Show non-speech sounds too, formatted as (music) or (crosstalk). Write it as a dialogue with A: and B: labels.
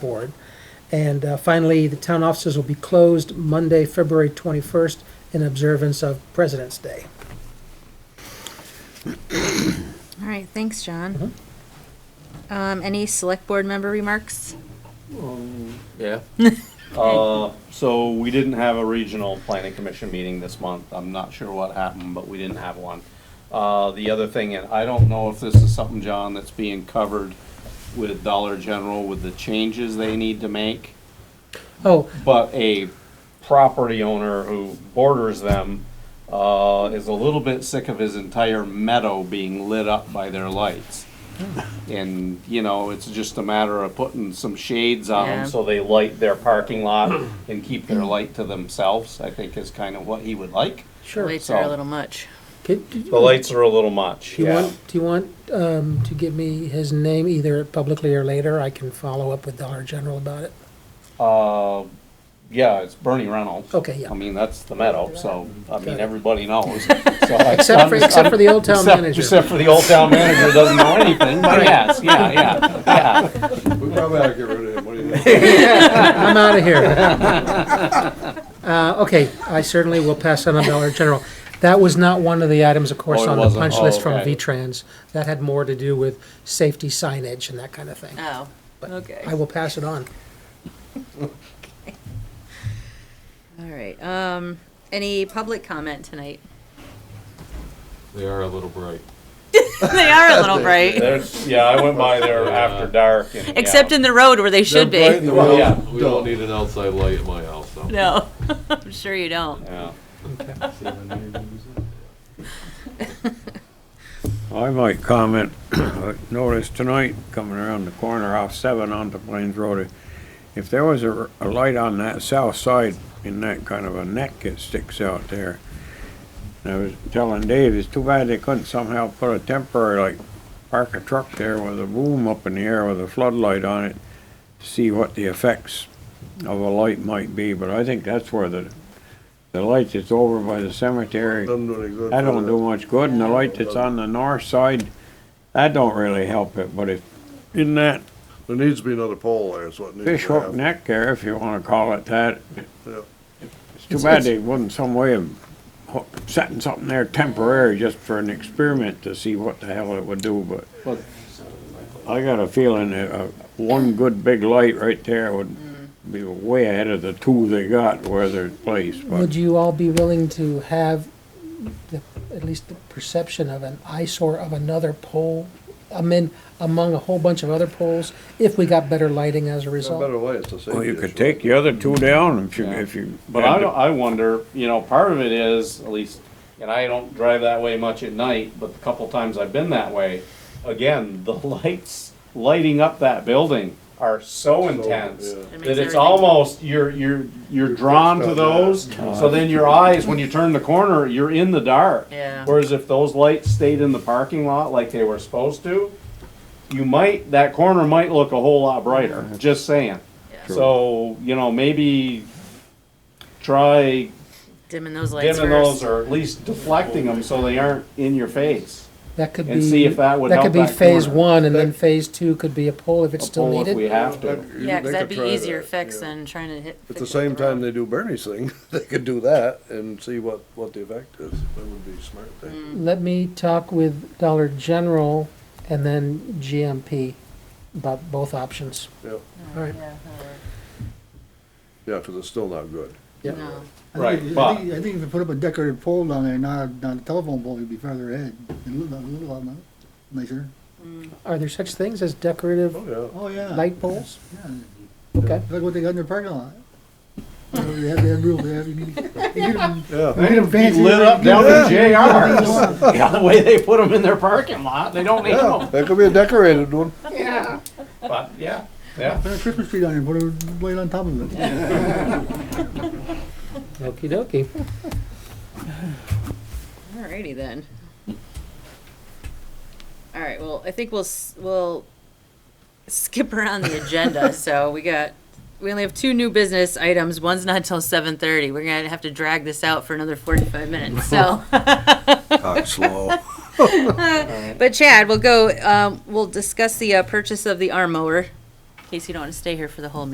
A: board. And uh, finally, the town offices will be closed Monday, February 21st, in observance of President's Day.
B: All right, thanks, John.
C: Mm-hmm.
B: Um, any select board member remarks?
D: Yeah.
E: Uh, so we didn't have a regional planning commission meeting this month. I'm not sure what happened, but we didn't have one. Uh, the other thing, and I don't know if this is something, John, that's being covered with Dollar General with the changes they need to make,
A: Oh,
E: but a property owner who borders them, uh, is a little bit sick of his entire meadow being lit up by their lights.
A: Hmm.
E: And, you know, it's just a matter of putting some shades on
B: Yeah.
E: them so they light their parking lot and keep their light to themselves, I think is kind of what he would like.
A: sure.
B: Lights are a
E: so-
B: little much.
A: Could- Do
E: The lights are a little much,
A: you
E: yeah.
A: want, do you want um, to give me his name either publicly or later? I can follow up with Dollar General about it.
E: Uh, yeah, it's Bernie Reynolds.
A: Okay, yeah.
E: I mean, that's the meadow, so, I mean,
A: Okay. (laughs)
E: everybody knows. So I-
A: Except for,
E: I'm-
A: except for the old town
E: except-
A: manager.
E: Except for the old town manager who doesn't know anything, but yes, yeah, yeah, yeah.
C: We probably ought to get rid of him, what
F: (laughs)
C: do you think?
A: I'm out of here. Uh, Okay, I certainly will pass on on Dollar General. That was not one of the items, of course,
E: Oh, it
A: on the
E: wasn't?
A: punch
E: Oh,
A: list from
E: okay.
A: V-Trans. That had more to do with safety signage and that kind of thing.
B: Oh, okay.
A: I will pass it on.
B: All right, um, any public comment tonight?
D: They are a little bright.
F: (laughs) They are a little bright,
E: There's, yeah, I went by there after dark and. yeah.
F: except in the road where they should
C: They're bright in
F: be.
C: the
D: Well,
E: yeah.
C: world.
D: we don't need an outside light in my house,
F: (laughs)
D: though.
F: No, I'm sure you don't.
E: Yeah.
G: I might comment, (clears throat) I noticed tonight, coming around the corner off seven onto Plains Road, if there was a, a light on that south side in that kind of a neck that sticks out there. And I was telling Dave, it's too bad they couldn't somehow put a temporary, like, park a truck there with a boom up in the air with a floodlight on it, to see what the effects of a light might be, but I think that's where the, the light that's over by the cemetery.
C: Doesn't do any good.
G: That don't do much good, and the light that's on the north side, that don't really help it, but if, in that
C: There needs to be another pole there, is what needs to
G: fish hook
C: happen.
G: neck there, if you wanna call it that,
C: Yeah.
G: it's too bad they wasn't some way of hook- setting something there temporary just for an experiment to see what the hell it would do, but
E: But-
G: I got a feeling that, uh, one good big light right there would
E: Mm.
G: be way ahead of the two they got where they're placed, but.
A: Would you all be willing to have the, at least the perception of an eyesore of another pole? I mean, among a whole bunch of other poles, if we got better lighting as a
C: There's no
A: result?
C: better way, it's a safety issue.
G: Well, you could take the other two down if you,
E: Yeah.
G: if you.
E: But I, don't- I wonder, you know, part of it is, at least, and I don't drive that way much at night, but the couple times I've been that way, again, the (laughs) lights lighting up that building are so intense
C: yeah.
F: makes
C: It
E: that it's
F: everything-
E: almost, you're, you're, you're drawn to
C: out,
E: those. So then your eyes, when you turn the corner, you're in the dark.
F: Yeah.
E: Whereas if those lights stayed in the parking lot like they were supposed to, you might, that corner might look a whole lot brighter, just saying.
G: True.
E: So, you know, maybe try
F: Dimming those lights
E: dimming those
F: first.
E: or at least deflecting them so they aren't in your face.
A: That could be.
E: And see if that would help
A: could be
E: that
A: phase
E: corner.
A: one, and then phase two could be a pole if it's
E: A
A: still
E: pull if we
A: needed.
E: have
C: That-
E: to.
C: you-
F: Yeah,
C: they
F: because
C: could
F: that'd be
C: try
F: easier
C: that,
F: fix
C: yeah.
F: than trying to hit.
C: At
F: fix
C: the
F: it
C: same
F: with
C: time
F: road.
C: they do Bernie's thing, (laughs) they could do that and see what, what the effect is. That would be a smart
F: Mm.
C: thing.
A: Let me talk with Dollar General and then GMP about both options.
C: Yeah,
A: All right.
F: Yeah, that'll work.
C: yeah, because it's still not good.
F: No.
H: I
E: Right,
H: think-
E: but-
H: I think, I think if you put up a decorative pole down there, not, a- not a telephone pole, you'd be further ahead, it'd look a little lot nicer.
A: Are there such things as decorative
C: Oh,
H: Oh, yeah.
A: light poles?
H: Yeah,
A: Okay.
H: Look what they got in their parking lot. You know, They have, they have real, they have, you need, you need
C: yeah. Yeah.
H: you need them
E: He
H: fancy.
E: lit up down to
H: Yeah.
E: JR's. (laughs) Yeah, the way they put them in their parking lot, they don't need
C: Yeah,
E: them.
C: that could be a decorated one.
E: Yeah. But, yeah, yeah.
H: Put a Christmas tree down here, put a light on top of it.
A: Okey dokey.
B: Alrighty then. Alright, well, I think we'll, s- we'll skip around the agenda, so we got, we only have two new business items, one's not till seven thirty, we're gonna have to drag this out for another forty-five minutes, so.
C: Talk slow.
B: But Chad, we'll go, um, we'll discuss the, uh, purchase of the arm mower case you don't want to stay here for the whole meeting.